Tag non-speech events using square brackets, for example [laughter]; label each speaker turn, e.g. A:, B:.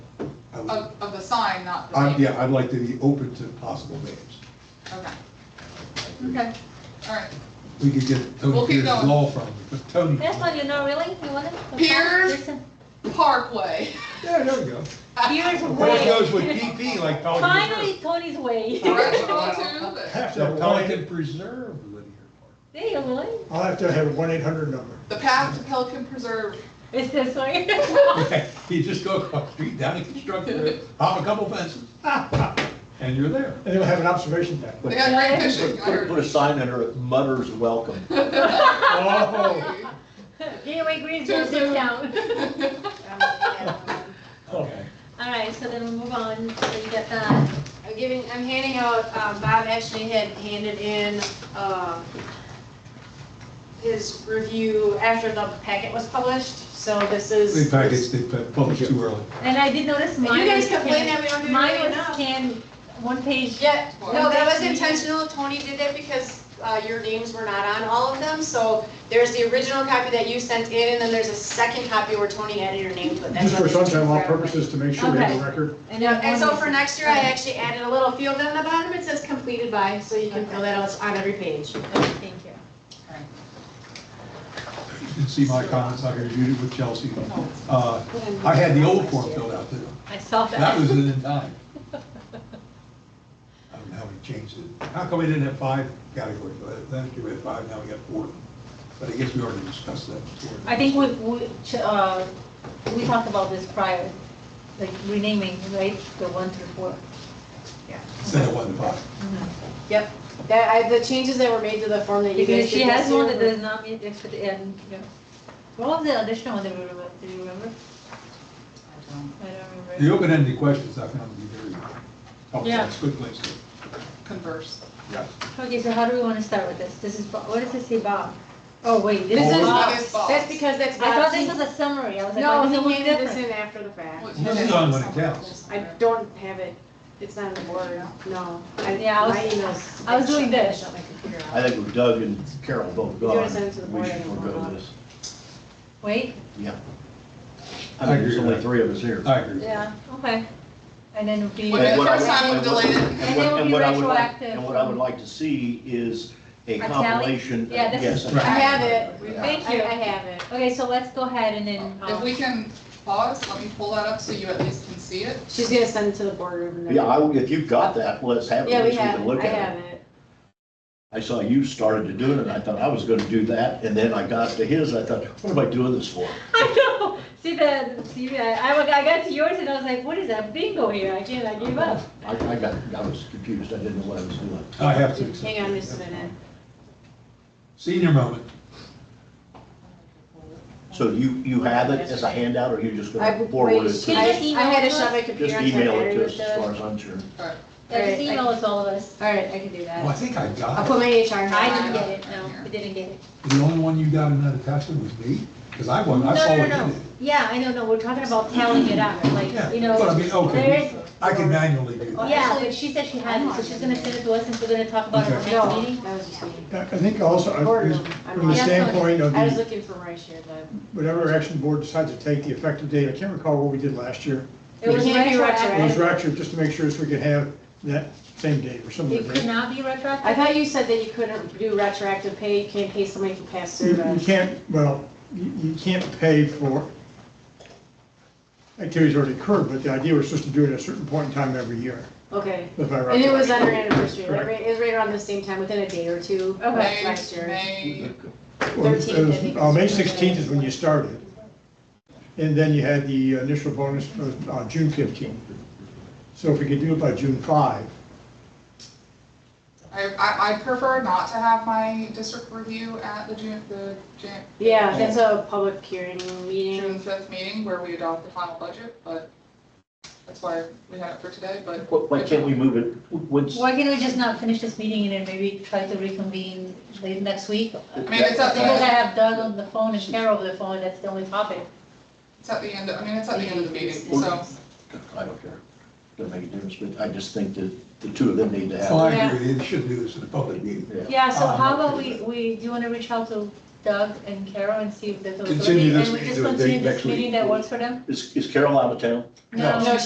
A: Of, of the sign, not the
B: I'm,
A: name?
B: Uh, yeah, I'd like to be open to possible names.
A: Okay. Okay, all right.
B: We could get Tony
A: We'll keep
B: Pierce's
A: going.
B: law firm, [laughs] but Tony.
C: That's one you know, really? You want it?
A: Piers?
C: Listen,
A: Parkway.
B: Yeah, there we go.
C: Piers
B: That
C: Way.
B: goes with PP like Pelican.
C: Finally, Tony's way.
A: Directional to the-
D: Have to
B: So
D: have a one
B: Pelican
D: eight-
B: Preserve Linear Park.
C: [laughs] There you go, really?
D: I'll have to have a one eight hundred number. [laughs]
A: the path to Pelican Preserve.
C: It's this way. [laughs]
B: [laughs] Okay, You just go across the street, down a construction road, hop a couple fences, and you're there.
D: And they'll have an observation
E: [laughs]
D: deck.
A: They got great fishing, I
F: Put, put a
A: heard.
F: sign under it, mutters welcome.
D: Oh,
C: Gateway Greens
A: Too
C: goes
A: soon.
C: down.
E: Um,
B: Okay.
C: All right, so then we'll move on, so you got that.
E: I'm giving, I'm handing out, um, Bob actually had handed in, um, his review after the packet was published, so this
B: The
E: is.
B: packets they put- published too early.
C: And I did notice
E: You
C: mine.
E: guys
C: was scanned-
E: complain that we don't do it
C: Mine was
E: enough.
C: scanned, one page.
E: Yeah, no, that was intentional, Tony did that because, uh, your names were not on all of them, so there's the original copy that you sent in, and then there's a second copy where Tony added your name to it. That's
D: Just for
E: what they do
D: sunshine law
E: for everybody.
D: purposes, to make sure we have
C: Okay.
D: a record.
C: And
E: Yeah,
C: then
E: and so
C: one
E: for
C: was-
E: next year, I actually added a little field on the bottom, it says completed by, so you can fill that out on every page.
C: Okay, Thank you.
B: You can see my comments, I reviewed it with Chelsea.
A: Oh.
B: Uh, I had the old form filled out too.
C: I saw that.
B: That was it
C: [laughs]
B: in time. I don't know how we changed it. How come we didn't have five categories? Last year we had five, now we got four. But I guess we already discussed that before.
C: I think we, we, ch- uh, we talked about this prior, like renaming, right, the one through four.
B: Instead of one to five.
E: Yep, that, I, the changes that were made to the form that you
C: Because
E: guys
C: she
E: did this
C: has one
E: year
C: that
E: were-
C: does not meet the fit and, yeah. What was the additional one that we remember, do you remember? I don't
B: The
C: remember.
B: open-ended questions, I found to be very helpful.
C: Yeah.
B: It's a good place to.
A: [laughs] Converse.
B: Yeah.
C: Okay, so how do we wanna start with this? This is, Bob- what does it say, Bob? Oh, wait, this
E: This
C: is
E: is,
C: Bob.
A: Bob's fault.
E: that's because that's
C: I thought
E: Bob's.
C: this was a summary, I was like, why
E: No,
C: does it look
E: he handed this
C: different?
E: in after the fact.
B: This is on when it counts.
E: I don't have it, it's not in the board, no. I-
C: Yeah, I was-
E: My emails.
C: I was doing this.
E: Shut my computer off.
F: I think with Doug and Carol both
E: You wanna
F: gone,
E: send it to the
F: we
E: board
F: should
E: and
F: forego
E: we'll-
F: this.
C: Wait,
F: Yeah.
B: I
F: I mean, there's
B: agree with
F: only
B: that.
F: three of us here.
B: I agree.
C: yeah, okay. And then it'll be.
A: Well, Okay,
F: And what I
A: first
F: would-
A: time we
F: and
A: delayed it.
F: what-
C: And
F: what-
C: it will
F: and
C: be
F: what I would like-
C: retroactive
F: And what I would
C: from-
F: like to see is a
C: tally?
F: compilation.
C: Yeah, this
F: yes,
B: is-
F: a
E: I have it.
C: Thank
E: I-
C: you.
E: I have it.
C: Okay, so let's go ahead and then. um,
A: If we can pause, let me pull that up so you at least can see it.
E: She's gonna send it to the board. over there.
F: Yeah, I, if you've got that, let's have it,
E: Yeah,
F: at
E: we
F: least we
E: have,
F: can
E: it.
F: look
E: I
F: at
E: have
F: it.
E: it.
F: I saw you started to do it, and I thought I was gonna do that, and then I got to his, I thought, what am I doing this for?
C: [laughs] I know. See the see I, I I got to yours and I was like, what is that bingo here? I can't. I gave up.
F: I, I got, I was confused, I didn't know what I was doing.
B: I have to accept.
E: Hang on
B: it.
E: just a minute.
B: Senior moment.
F: So you, you have it as a handout, or you're just
E: I,
F: gonna forward
E: wait,
F: it?
E: she-
F: to
C: Can
E: I,
C: you
F: us?
C: just email
E: I had to
C: it to
E: shut
C: us?
E: my computer.
F: Just
E: on, so I
F: email it
E: already
F: to us,
E: looked
F: as
E: up.
F: far as I'm sure.
C: Yeah, just
E: Right, I-
C: email us all of us.
E: All right, I can do that.
B: Well, I think I
E: I'll
B: got
E: put
B: it.
E: my HR. hat
C: I
E: on.
C: didn't get it. No, we didn't get it.
B: The only one you got in that attachment was me, because I wasn't, I
C: no,
B: saw
C: no,
B: what
C: no,
B: you
C: no.
B: did.
C: Yeah, I know. No, we're talking about tallying it up, like
B: Yeah,
C: you
B: but I
C: know.
B: mean, okay,
C: There's
B: I can manually do that.
C: yeah, but she said she had it, so she's gonna send it to us and we're gonna talk about it
B: Okay.
C: at our next
E: No,
C: meeting.
E: that was just me.
D: I I think also,
E: Or
D: I-
E: no,
D: is-
E: I'm
D: from the
E: not.
D: standpoint of
E: I was
D: the-
E: looking for my share, but.
D: whatever action the board decides to take, the effective date, I can't recall what we did last year.
C: It was
E: It can't be
D: It was
C: retroactive.
E: retroactive.
D: retroactive, just to make sure so we could have that same date or something
C: It
D: like
C: could
D: that.
C: not be
E: I
C: retroactive.
E: thought you said that you couldn't do retroactive pay, you can't pay somebody for past
D: You you
E: service.
D: can't, well, you you can't pay for activities already occurred, but the idea was just to do it at a certain point in time every year,
E: Okay.
D: if I recall.
E: And it was on our anniversary,
D: Correct.
E: right? it was right around the same time, within a day or two of
C: Okay.
E: last year.
A: May,
D: Well, it
E: 13th, I
D: was-
E: think.
D: uh, May 16th is when you started. And then you had the initial bonus uh, on June 15th. So if we could do it by June 5,
A: I, I, I prefer not to have my district review at the June, the June.
E: Yeah, that's a public hearing meeting.
A: June fifth meeting where we adopt the final budget, but that's why we had it for today, but.
F: Why why can't we move it, what's?
C: Why can't we just not finish this meeting and then maybe try to reconvene late next week?
A: mean, it's up to
C: Because I
A: you.
C: have Doug on the phone and Carol on the phone, that's the only topic.
A: It's at the end, of- I mean, it's at the end of the meeting, so.
F: Well, I don't care, doesn't make a difference, but I just think that the two of them need to
B: So I
F: have.
B: agree, they shouldn't do this in a public meeting.
F: it. Yeah.
C: Yeah, so
B: Um,
C: how about we, we, do you want to reach out to Doug and Carol and see if there's a
B: Continue
C: possibility?
B: this
C: And we
B: meeting
C: just
B: to a date
C: continue this
B: next week.
C: meeting that works for them?
F: Is, is Carol out of town?
B: No.
E: No,